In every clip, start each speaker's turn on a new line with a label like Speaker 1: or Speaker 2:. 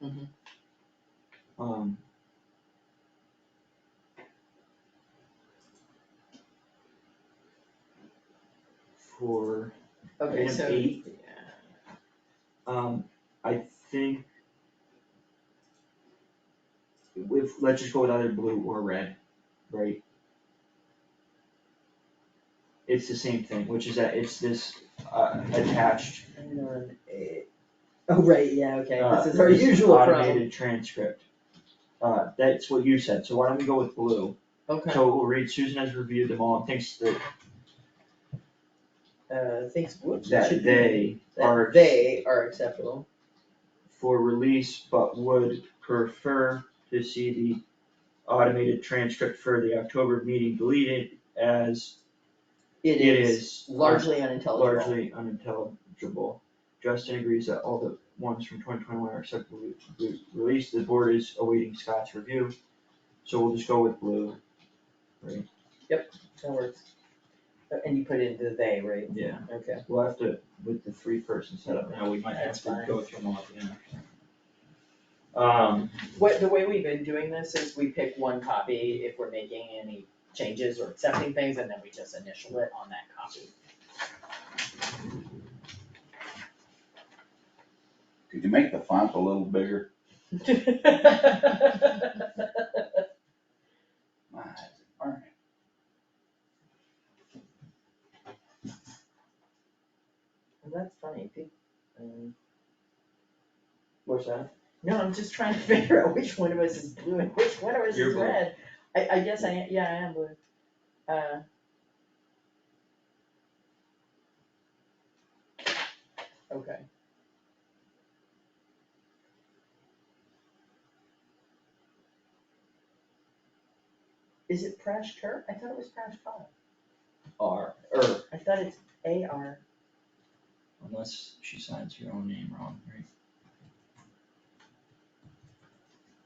Speaker 1: Mhm.
Speaker 2: Um, for
Speaker 1: Okay,
Speaker 2: item
Speaker 1: so.
Speaker 2: eight.
Speaker 1: yeah.
Speaker 2: Um, I think with, let's just go with either blue or red, right? It's the same thing, which is that it's this, uh, attached,
Speaker 1: Hang on, eh, Oh, right, yeah, okay,
Speaker 2: uh,
Speaker 1: this is our usual problem.
Speaker 2: Automated transcript. Uh, that's what you said, so why don't we go with blue?
Speaker 1: Okay,
Speaker 2: So we'll read, Susan has reviewed them all and thinks that,
Speaker 1: uh, thanks, whoops, it
Speaker 2: that
Speaker 1: should be-
Speaker 2: they
Speaker 1: that
Speaker 2: are
Speaker 1: They are acceptable.
Speaker 2: for release, but would prefer to see the automated transcript for the October meeting deleted as
Speaker 1: It is
Speaker 2: largely
Speaker 1: largely unintelligible.
Speaker 2: largely unintelligible. Justin agrees that all the ones from twenty twenty one are acceptably re- released, the board is awaiting Scott's review, so we'll just go with blue.
Speaker 1: That works. Uh, And you put in the they, right?
Speaker 2: Yeah.
Speaker 1: Okay,
Speaker 2: We'll have to, with the three person setup now, we might have
Speaker 1: That's
Speaker 2: to
Speaker 1: fine.
Speaker 2: go through them all again. Um,
Speaker 1: what, the way we've been doing this is we pick one copy if we're making any changes or accepting things, and then we just initial it on that copy.
Speaker 3: Could you make the font a little bigger? My eyes are burning.
Speaker 1: And that's funny, peop- um,
Speaker 2: what's that?
Speaker 1: No, I'm just trying to figure out which one of us is blue and which one of us
Speaker 2: You're
Speaker 1: is
Speaker 2: blue.
Speaker 1: red. I, I guess I, am- yeah, I am blue. Uh, Okay. Is it Prash Kurt? I thought it was Prash Kurt.
Speaker 2: R, er,
Speaker 1: I thought it's A R.
Speaker 2: unless she signs her own name wrong, right?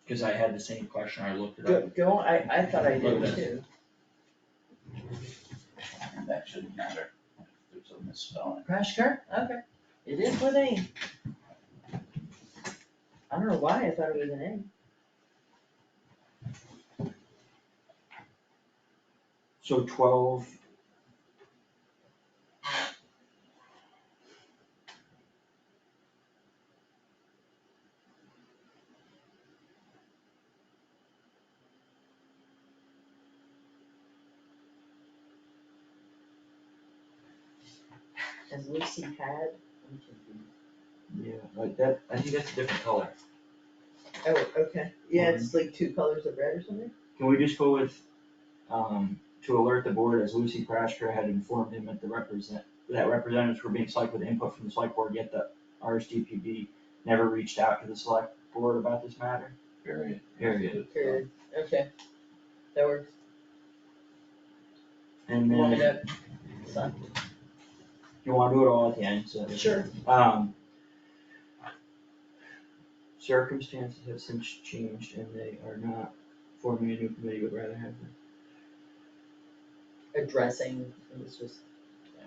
Speaker 2: Cause I had the same question, I looked it up.
Speaker 1: Go, go, I, I thought I
Speaker 2: Look
Speaker 1: did
Speaker 2: at
Speaker 1: too.
Speaker 3: And that shouldn't matter. There's a misspelling.
Speaker 1: Crash car, okay, it is with A. I don't know why I thought it was an
Speaker 2: So twelve.
Speaker 1: A, as Lucy had.
Speaker 2: Yeah, like that, I think that's a different color.
Speaker 1: Oh, okay, yeah, it's like two colors of red or something?
Speaker 2: Can we just go with, um, to alert the board as Lucy Crashker had informed him that the represent, that representatives were being selected with input from the select board, yet the RSDPB never reached out to the select board about this matter?
Speaker 3: Period.
Speaker 2: Period.
Speaker 1: Period, okay, that works,
Speaker 2: And
Speaker 1: you want me
Speaker 2: then,
Speaker 1: to, sign?
Speaker 2: you wanna do it all at the end, so.
Speaker 1: sure,
Speaker 2: Um. Circumstances have since changed and they are not forming a new committee, would rather have them.
Speaker 1: addressing, it was just, yeah.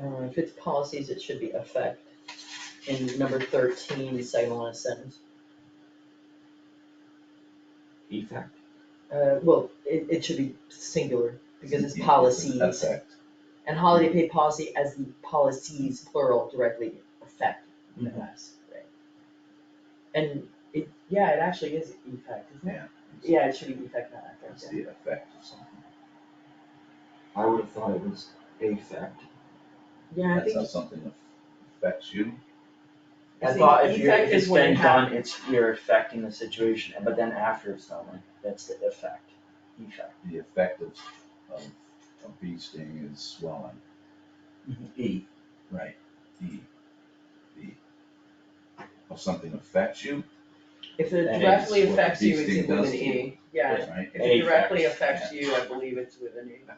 Speaker 1: Uh, if it's policies, it should be effect. In number thirteen, the second last sentence,
Speaker 2: Effect.
Speaker 1: uh, well, it, it should be singular, because it's policies.
Speaker 3: Effect.
Speaker 1: And holiday pay policy as the policies plural directly affect
Speaker 3: Mm-hmm.
Speaker 1: us, right? And it, yeah, it actually is effect, isn't it?
Speaker 3: Yeah.
Speaker 1: Yeah, it should be effect, not
Speaker 3: It's
Speaker 1: effect,
Speaker 3: the effect of something.
Speaker 2: I would have thought it was effect.
Speaker 1: yeah. Yeah, I
Speaker 3: That's how
Speaker 1: think,
Speaker 3: something affects you.
Speaker 2: I
Speaker 1: See,
Speaker 2: thought if you're,
Speaker 1: effect
Speaker 2: if it's
Speaker 1: is when
Speaker 2: been
Speaker 1: it
Speaker 2: done,
Speaker 1: happens.
Speaker 2: it's, you're affecting the situation, but then after it's done, like, that's the effect, effect.
Speaker 3: The effect of, of a bee sting is swelling.
Speaker 2: E,
Speaker 3: Right. The, the, of E. something affects you,
Speaker 1: if it
Speaker 2: That
Speaker 1: directly
Speaker 3: is what
Speaker 1: affects you,
Speaker 3: these
Speaker 1: it's
Speaker 3: things
Speaker 1: with
Speaker 3: does
Speaker 1: an
Speaker 3: to
Speaker 1: E, yeah.
Speaker 3: right?
Speaker 1: If it directly
Speaker 2: Affects,
Speaker 1: affects you, I believe it's with an E.